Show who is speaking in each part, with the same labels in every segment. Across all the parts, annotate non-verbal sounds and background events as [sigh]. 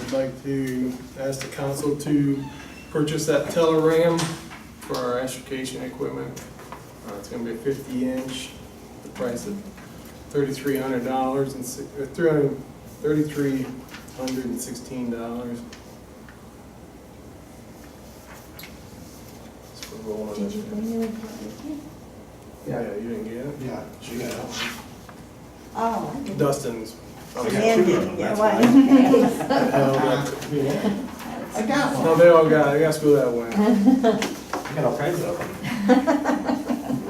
Speaker 1: I'd like to ask the council to purchase that Teleram for our extrication equipment. Uh, It's gonna be a fifty inch, the price of thirty-three hundred dollars and six, uh, three hundred, thirty-three hundred and sixteen dollars. It's for rolling
Speaker 2: Did you
Speaker 1: it.
Speaker 2: bring the report with you?
Speaker 1: Yeah, you didn't get it?
Speaker 3: Yeah, she got it.
Speaker 2: Oh, I did.
Speaker 1: Dustin's.
Speaker 3: I
Speaker 1: Okay.
Speaker 3: got two of them, that's why.
Speaker 2: [laughs] why.
Speaker 1: No,
Speaker 3: I got one.
Speaker 1: they all got, it. I guess we that way.
Speaker 3: I got all kinds of them.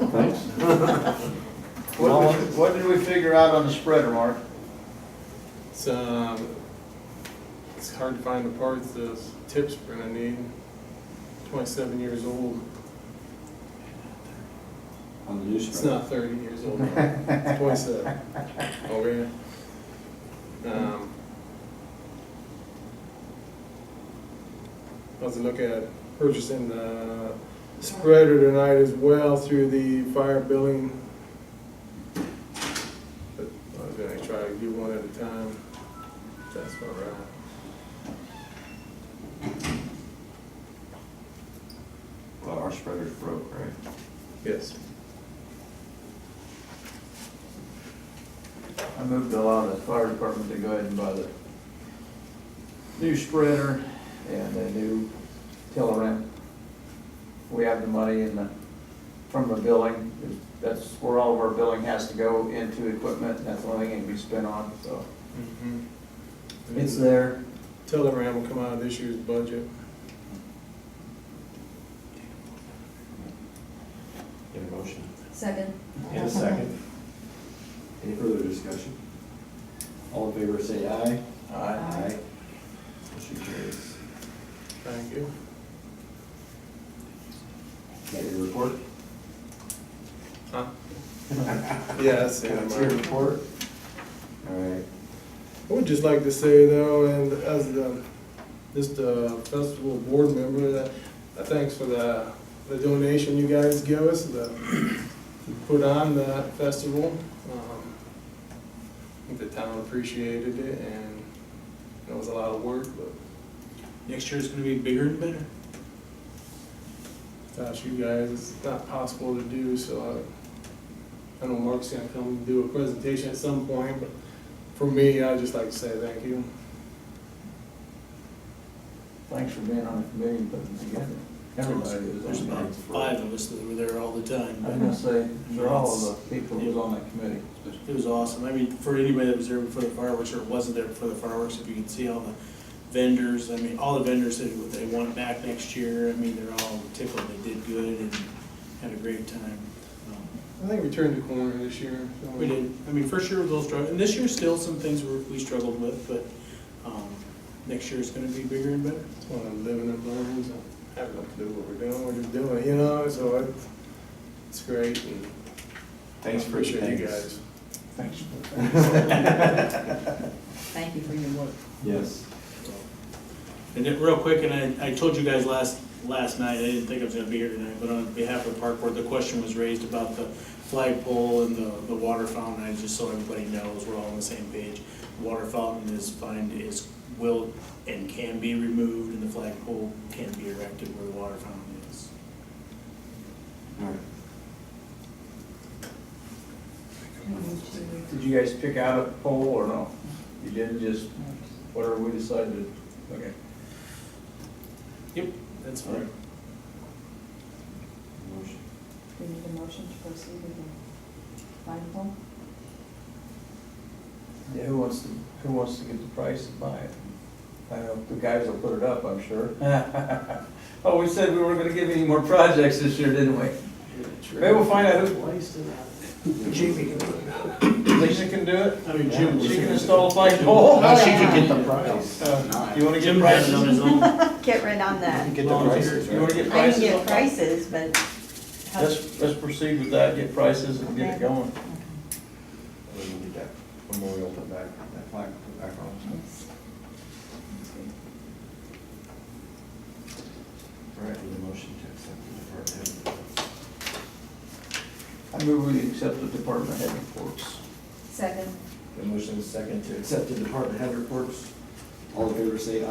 Speaker 3: Thanks.
Speaker 4: What,
Speaker 3: Well,
Speaker 4: did we- what did we figure out on the spreader, Mark?
Speaker 1: It's, um, it's hard to find the parts, the tips we're gonna need. Twenty-seven years old.
Speaker 5: On the new
Speaker 1: It's
Speaker 5: spread.
Speaker 1: not thirty years
Speaker 5: [laughs]
Speaker 1: old, it's twenty-seven. Okay. Um, I was looking at purchasing the spreader tonight as well through the fire billing. But I was gonna try to do one at a time, if that's all right.
Speaker 5: Well, our spreader's broke, right?
Speaker 1: Yes.
Speaker 4: I moved to allow the fire department to go ahead and buy the new spreader and a new teleram. We have the money in the, from the billing, that's where all of our billing has to go into equipment, and that's the only thing it can be spent on, so. It's there,
Speaker 1: Mm-hmm. Telegram will come out of this year's budget.
Speaker 3: Get a motion.
Speaker 2: Second.
Speaker 3: In a second. Any further discussion? All in favor, say aye.
Speaker 4: uh,
Speaker 2: Aye.
Speaker 3: Motion carries.
Speaker 1: Thank you.
Speaker 3: Got your report?
Speaker 1: Huh? Yeah, that's it.
Speaker 3: Got your report? All right.
Speaker 1: I would just like to say though, and as the, just the festival board member, that, uh, thanks for the, the donation you guys give us, the, to put on the festival. Um, I think the town appreciated it and it was a lot of work, but
Speaker 6: Next year it's gonna be bigger and better.
Speaker 1: without you guys, it's not possible to do, so I, I know Mark's gonna come do a presentation at some point, but for me, I'd just like to say thank you.
Speaker 4: thanks for being on the committee and putting it together. Everybody
Speaker 6: There's
Speaker 4: is on
Speaker 6: about
Speaker 4: that.
Speaker 6: five of us that were there all the
Speaker 4: I was
Speaker 6: time.
Speaker 4: gonna say, they're all of the people who's on that committee.
Speaker 6: It was awesome. I mean, for anybody that was there before the fireworks or wasn't there before the fireworks, if you can see all the vendors, I mean, all the vendors that they want back next year, I mean, they're all tickled. They did good and had a great time. Um,
Speaker 1: I think we turned the corner this year. so-
Speaker 6: We did, I mean, first year was a little struggle, and this year still some things were, we struggled with, but, um, next year it's gonna be bigger and better.
Speaker 1: It's one of the living and learns, and having to do what we're doing, we're just doing it, you know, so it's, it's great. and
Speaker 3: Thanks for your
Speaker 1: Appreciate you
Speaker 3: thanks.
Speaker 1: guys.
Speaker 4: Thanks.
Speaker 2: Thank you for your work.
Speaker 3: Yes.
Speaker 6: And then, real quick, and I, I told you guys last, last night, I didn't think I was gonna be here tonight, but on behalf of the park board, the question was raised about the flagpole and the, the water fountain, I just so everybody knows, we're all on the same page. Water fountain is fine, is, will, and can be removed, and the flagpole can be erected where the water fountain is.
Speaker 3: All right.
Speaker 4: Did you guys pick out a poll or no? You didn't just, whatever we decided, okay.
Speaker 6: Yep, that's
Speaker 3: All right.
Speaker 6: fine.
Speaker 3: Motion.
Speaker 2: We need a motion to proceed with the live poll?
Speaker 4: Yeah, who wants to, who wants to get the price and buy it? I don't know, the guys will put it up, I'm sure. [laughs] Oh, we said we weren't gonna give any more projects this year, didn't we? Maybe we'll find out who, Lisa can do it?
Speaker 6: I mean, Jim.
Speaker 4: She can install a light pole?
Speaker 2: No, she can get
Speaker 3: the price.
Speaker 4: Uh, You wanna get
Speaker 6: Jim has it on
Speaker 4: prices?
Speaker 6: his own.
Speaker 2: [laughs] Get rid on that.
Speaker 3: Get the prices,
Speaker 4: You wanna
Speaker 3: right?
Speaker 4: get
Speaker 2: I
Speaker 4: prices?
Speaker 2: can get prices, but. how-
Speaker 4: Let's, let's proceed with that, get prices and get it going.
Speaker 3: We need that memorial put back, that flag put back on. All right, need a motion to accept the department head.
Speaker 4: I move we accept the department head reports.
Speaker 2: Second.
Speaker 3: The motion is second to accept the department head reports. All in favor, say aye.